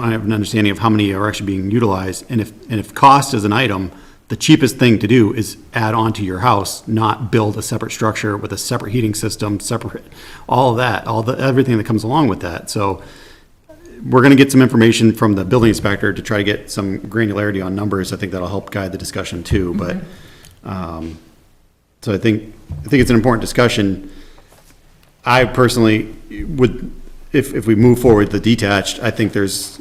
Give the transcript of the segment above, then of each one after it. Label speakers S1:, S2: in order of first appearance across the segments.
S1: I have an understanding of how many are actually being utilized, and if, and if cost is an item, the cheapest thing to do is add on to your house, not build a separate structure with a separate heating system, separate, all of that, all the, everything that comes along with that. So we're gonna get some information from the building inspector to try to get some granularity on numbers. I think that'll help guide the discussion too, but, um, so I think, I think it's an important discussion. I personally would, if, if we move forward the detached, I think there's,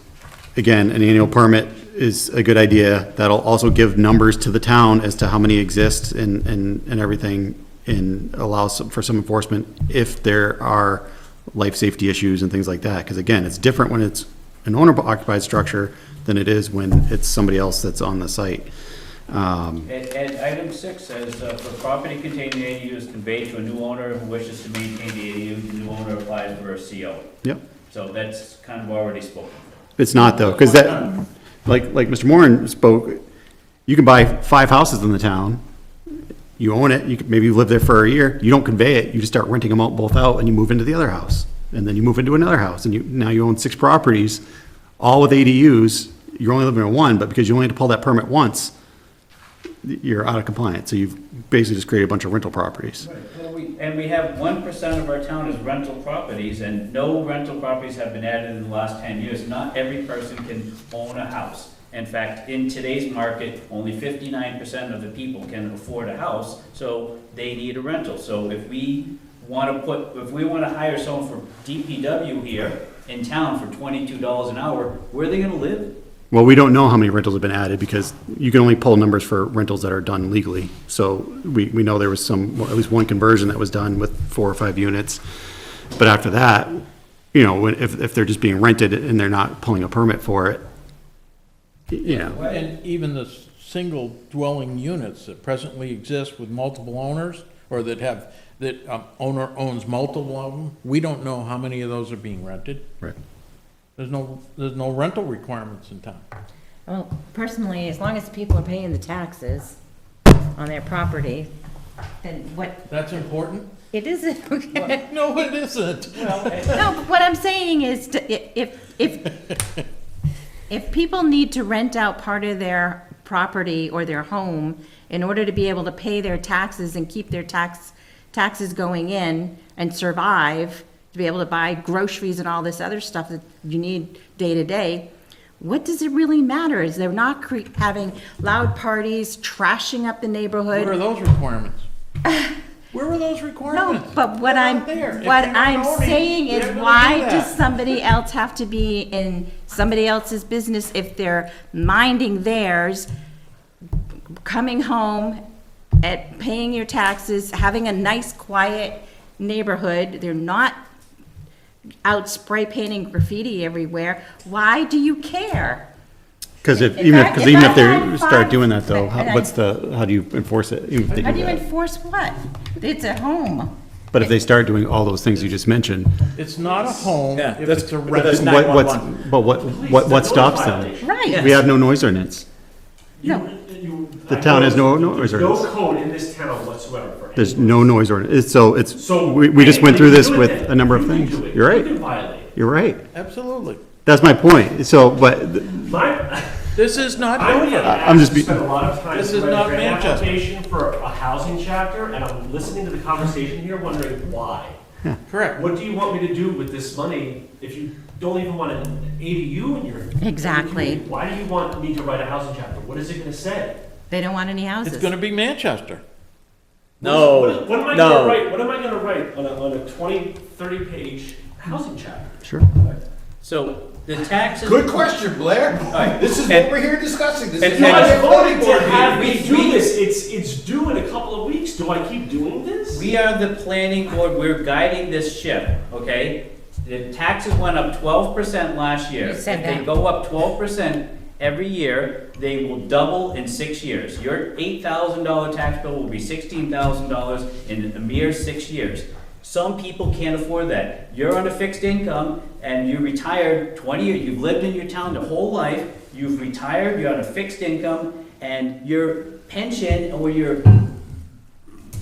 S1: again, an annual permit is a good idea. That'll also give numbers to the town as to how many exist and, and, and everything and allows some- for some enforcement if there are life safety issues and things like that. Because again, it's different when it's an owner occupied structure than it is when it's somebody else that's on the site. Um,
S2: And, and item six says, uh, for property containing an ADU is conveyed to a new owner who wishes to maintain the ADU, the new owner applies for a CO.
S1: Yep.
S2: So that's kind of already spoken.
S1: It's not though, because that, like, like Mr. Moran spoke, you can buy five houses in the town. You own it, you could, maybe you live there for a year, you don't convey it, you just start renting them out both out and you move into the other house. And then you move into another house and you, now you own six properties, all with ADUs. You're only living in one, but because you only had to pull that permit once, you're out of compliance. So you've basically just created a bunch of rental properties.
S2: Well, we- And we have one percent of our town is rental properties, and no rental properties have been added in the last ten years. Not every person can own a house. In fact, in today's market, only fifty-nine percent of the people can afford a house, so they need a rental. So if we wanna put, if we wanna hire someone from DPW here in town for twenty-two dollars an hour, where are they gonna live?
S1: Well, we don't know how many rentals have been added because you can only pull numbers for rentals that are done legally. So we, we know there was some, well, at least one conversion that was done with four or five units. But after that, you know, when- if, if they're just being rented and they're not pulling a permit for it, you know,
S3: And even the s- single dwelling units that presently exist with multiple owners, or that have, that um, owner owns multiple of them, we don't know how many of those are being rented.
S1: Right.
S3: There's no, there's no rental requirements in town.
S4: Well, personally, as long as people are paying the taxes on their property, then what,
S3: That's important?
S4: it isn't, okay?
S3: No, it isn't.
S4: No, but what I'm saying is, to- i- if, if, if people need to rent out part of their property or their home in order to be able to pay their taxes and keep their tax, taxes going in and survive, to be able to buy groceries and all this other stuff that you need day to day, what does it really matter? Is they're not cre- having loud parties, trashing up the neighborhood?
S3: Where are those requirements? Where are those
S4: No,
S3: requirements?
S4: but what
S3: They're
S4: I'm,
S3: not there. If
S4: what
S3: they're not
S4: I'm
S3: owning,
S4: saying
S3: they're
S4: is,
S3: gonna do
S4: why
S3: that.
S4: does somebody else have to be in somebody else's business if they're minding theirs, coming home, at, paying your taxes, having a nice, quiet neighborhood, they're not out spray painting graffiti everywhere, why do you care?
S1: because if,
S4: If
S1: even
S4: I-
S1: if, because
S4: if
S1: even
S4: I
S1: if they
S4: had
S1: start
S4: five-
S1: doing that though, how-
S4: and I-
S1: what's the, how do you enforce it? even if they
S4: How
S1: do
S4: do you
S1: that?
S4: enforce what? It's a home.
S1: But if they start doing all those things you just mentioned,
S3: It's not a home
S5: Yeah,
S3: if
S5: that's-
S3: it's a
S5: but
S3: rental.
S5: that's
S1: what, what's,
S5: 911.
S1: but what, what, what stops them?
S4: Right.
S1: We have no noise ordinance.
S4: No.
S1: The
S6: The
S1: town has no- no reserves.
S6: No code in this town whatsoever for any.
S1: There's no noise ordinance, It's- so it's,
S6: So.
S1: we, we just went through this
S6: anybody
S1: with
S6: can do it
S1: a number of
S6: then. You
S1: things.
S6: can do it.
S1: You're
S6: You can
S1: right,
S6: violate it.
S1: you're right.
S3: Absolutely.
S1: That's my point, so, but, th-
S6: My,
S3: This is not
S6: I would
S3: doing it.
S6: have
S1: I'm just be-
S6: spent a lot of time.
S3: This is
S6: writing
S3: not
S6: an
S3: Manchester.
S6: Application for a housing chapter, and I'm listening to the conversation here wondering why.
S3: Correct.
S6: What do you want me to do with this money if you don't even want an ADU in your?
S4: Exactly.
S6: Why do you want me to write a housing chapter? What is it gonna say?
S4: They don't want any houses.
S3: It's gonna be Manchester. Oh,
S6: What, what am I
S5: No,
S6: gonna
S5: no.
S6: write, what am I gonna write on a, on a twenty, thirty page housing chapter?
S1: sure.
S2: So the taxes.
S7: Good question, Blair.
S2: right.
S7: This is
S2: And-
S7: what we're here discussing. This
S2: and-
S7: is
S6: No,
S7: not
S2: and-
S7: a
S6: I
S7: voting
S6: voted
S7: board
S6: to have
S7: meeting.
S6: me do this, it's, it's due in a couple of weeks, do I keep doing this?
S2: We are the planning board, we're guiding this ship, okay? The taxes went up twelve percent last year.
S4: You said
S2: If they
S4: that.
S2: go up twelve percent every year, they will double in six years. Your eight thousand dollar tax bill will be sixteen thousand dollars in a mere six years. Some people can't afford that. You're on a fixed income and you retired twenty, years. you've lived in your town the whole life, you've retired, you're on a fixed income, and your pension or your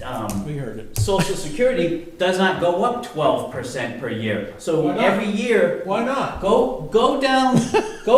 S2: um,
S3: We heard it.
S2: social security does not go up twelve percent per year. So
S3: Why not?
S2: every year,
S3: Why not?
S2: go, go down, go